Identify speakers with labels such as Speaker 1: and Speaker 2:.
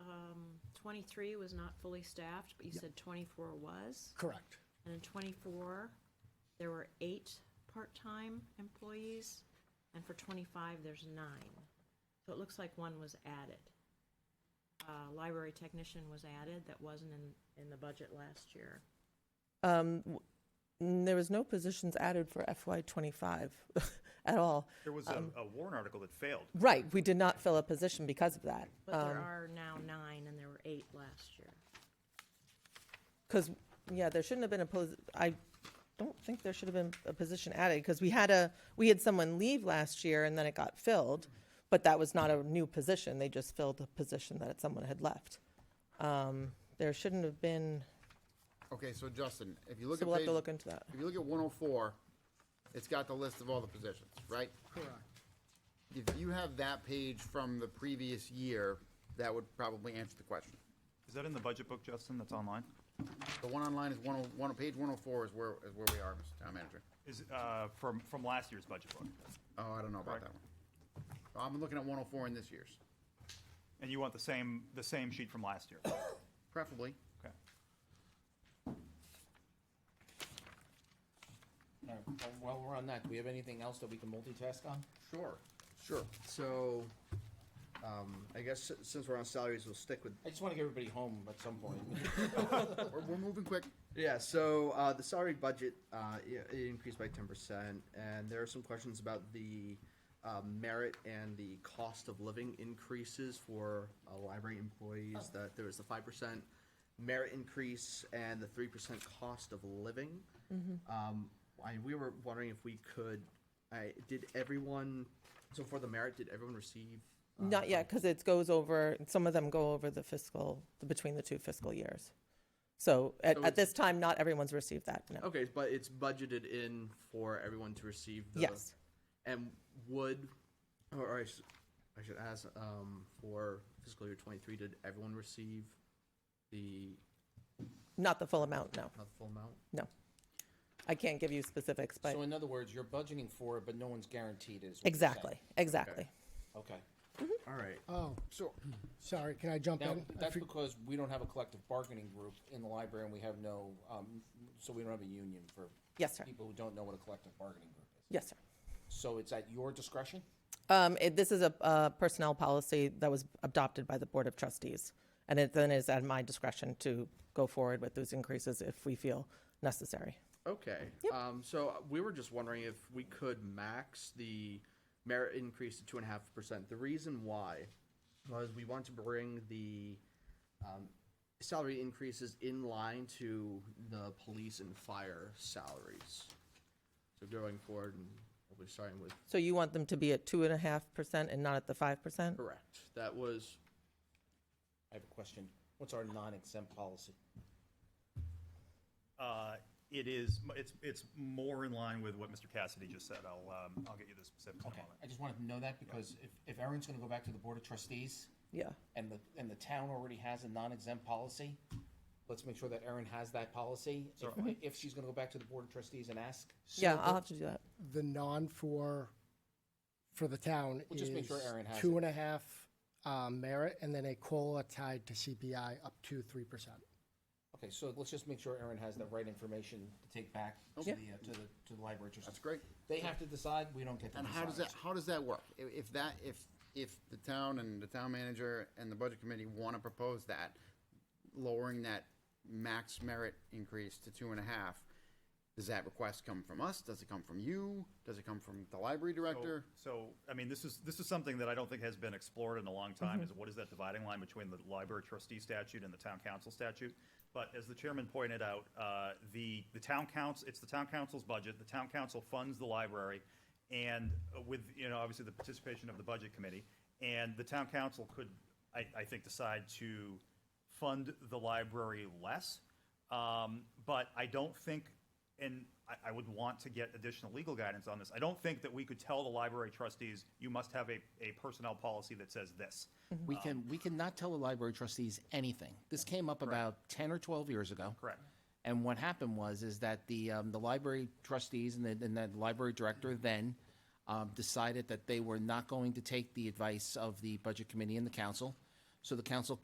Speaker 1: um, twenty-three was not fully staffed, but you
Speaker 2: Yep.
Speaker 1: said twenty-four was.
Speaker 2: Correct.
Speaker 1: And in twenty-four, there were eight part-time employees, and for twenty-five, there's nine. So it looks like one was added. Uh, library technician was added, that wasn't in, in the budget last year.
Speaker 3: And Um, There was no positions added for FY twenty-five at all. Uh,
Speaker 4: There was a, a Warren article that failed.
Speaker 3: Right, we did not fill a position because of that. uh,
Speaker 1: But there are now nine, and there were eight last year.
Speaker 3: Because, yeah, there shouldn't have been a pos, I don't think there should have been a position added, because we had a, we had someone leave last year and then it got filled, but that was not a new position, they just filled a position that someone had left. Um, There shouldn't have been,
Speaker 5: Okay, so Justin, if you look
Speaker 3: so
Speaker 5: at
Speaker 3: we'll have
Speaker 5: page,
Speaker 3: to look into that.
Speaker 5: if you look at one oh four, it's got the list of all the positions, right?
Speaker 2: Correct.
Speaker 5: If you have that page from the previous year, that would probably answer the question.
Speaker 4: Is that in the budget book, Justin, that's online?
Speaker 5: The one online is one oh, one, page one oh four is where, is where we are, Mr. Town Manager.
Speaker 4: Is, uh, from, from last year's budget book?
Speaker 5: Oh, I don't know about
Speaker 4: Correct.
Speaker 5: that one. I'm looking at one oh four in this year's,
Speaker 4: And you want the same, the same sheet from last year?
Speaker 5: preferably.
Speaker 4: Okay.
Speaker 6: All right, well, While we're on that, do we have anything else that we can multitask on?
Speaker 7: Sure, sure. So, um, I guess si- since we're on salaries, we'll stick with,
Speaker 6: I just want to get everybody home at some point.
Speaker 5: We're, we're moving quick.
Speaker 7: yeah, so, uh, the salary budget, uh, i- it increased by ten percent, and there are some questions about the, uh, merit and the cost of living increases for, uh, library employees, that there was the five percent merit increase and the three percent cost of living. Um, I, we were wondering if we could, I, did everyone, so for the merit, did everyone receive? uh,
Speaker 3: Not yet, because it goes over, some of them go over the fiscal, between the two fiscal years. So
Speaker 7: So
Speaker 3: at, at
Speaker 7: it's-
Speaker 3: this time, not everyone's received that, no.
Speaker 7: Okay, but it's budgeted in for everyone to receive the.
Speaker 3: Yes.
Speaker 7: And would, or, or I, should, I should ask, um, for fiscal year twenty-three, did everyone receive the,
Speaker 3: Not the full amount, no,
Speaker 7: not the full amount?
Speaker 3: no. I can't give you specifics, but.
Speaker 6: So in other words, you're budgeting for it, but no one's guaranteed is. what you're saying.
Speaker 3: Exactly, exactly.
Speaker 6: Okay.
Speaker 7: All right.
Speaker 2: Oh,
Speaker 5: So,
Speaker 2: sorry, can I jump
Speaker 6: Now,
Speaker 2: in? I
Speaker 6: that's
Speaker 2: for-
Speaker 6: because we don't have a collective bargaining group in the library and we have no, um, so we don't have a union for.
Speaker 3: Yes, sir.
Speaker 6: People who don't know what a collective bargaining group is.
Speaker 3: Yes, sir.
Speaker 6: So it's at your discretion?
Speaker 3: Um, it, this is a, a personnel policy that was adopted by the Board of Trustees. And it then is at my discretion to go forward with those increases if we feel necessary.
Speaker 7: Okay. Um, so we were just wondering if we could max the merit increase to two and a half percent. The reason why was we want to bring the um, salary increases in line to the police and fire salaries. So going forward, and we're starting with
Speaker 3: So you want them to be at two and a half percent and not at the five percent?
Speaker 7: correct. That was
Speaker 6: I have a question. What's our non-exempt policy?
Speaker 4: Uh, it is, it's, it's more in line with what Mr. Cassidy just said. I'll, um, I'll get you the specifics in a
Speaker 6: Okay,
Speaker 4: moment.
Speaker 6: I just wanted to know that because if, if Erin's gonna go back to the Board of Trustees.
Speaker 3: Yeah.
Speaker 6: And the, and the town already has a non-exempt policy, let's make sure that Erin has that policy. If-
Speaker 4: Certainly.
Speaker 6: If she's gonna go back to the Board of Trustees and ask. so
Speaker 3: Yeah,
Speaker 6: that-
Speaker 3: I'll have to do that.
Speaker 2: The non for, for the town
Speaker 6: We'll just make
Speaker 2: is
Speaker 6: sure Aaron has
Speaker 2: two
Speaker 6: it.
Speaker 2: and a half uh, merit, and then a COLA tied to CPI up to 3%.
Speaker 6: Okay, so let's just make sure Erin has the right information to take back to the, uh, to the, to the library trustees.
Speaker 5: That's great.
Speaker 6: They have to decide, we don't get to decide.
Speaker 5: And how does that, how does that work? If, if that, if, if the town and the town manager and the budget committee wanna propose that, lowering that max merit increase to two and a half, does that request come from us? Does it come from you? Does it come from the library director?
Speaker 4: So, I mean, this is, this is something that I don't think has been explored in a long time, is what is that dividing line between the library trustee statute and the town council statute? But as the chairman pointed out, uh, the, the town council, it's the town council's budget, the town council funds the library, and with, you know, obviously the participation of the budget committee, and the town council could, I, I think, decide to fund the library less. Um, but I don't think, and I, I would want to get additional legal guidance on this. I don't think that we could tell the library trustees, you must have a, a personnel policy that says this.
Speaker 6: We can, we cannot tell the library trustees anything. This came up about ten or twelve years ago.
Speaker 4: Correct.
Speaker 6: And what happened was, is that the, um, the library trustees and the, and the library director then, um, decided that they were not going to take the advice of the budget committee and the council. So the council